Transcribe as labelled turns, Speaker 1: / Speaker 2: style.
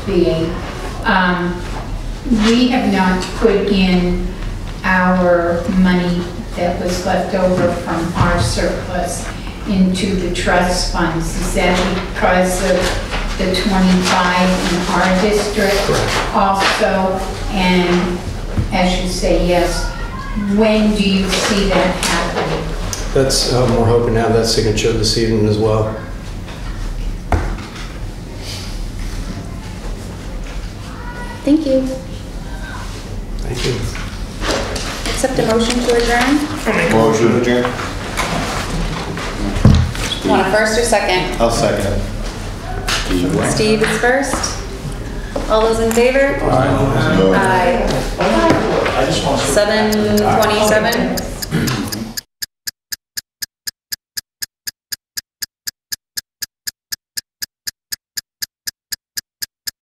Speaker 1: being, um, we have not put in our money that was left over from our surplus into the trust funds. Is that because of the 25 in our district? Also, and as you say, yes, when do you see that happening?
Speaker 2: That's, um, we're hoping to have that signature this evening as well.
Speaker 3: Thank you.
Speaker 2: Thank you.
Speaker 3: Accept a motion to adjourn.
Speaker 4: Motion adjourned.
Speaker 3: Want a first or second?
Speaker 4: I'll second it.
Speaker 3: Steve is first. All those in favor? Aye. Seven twenty-seven?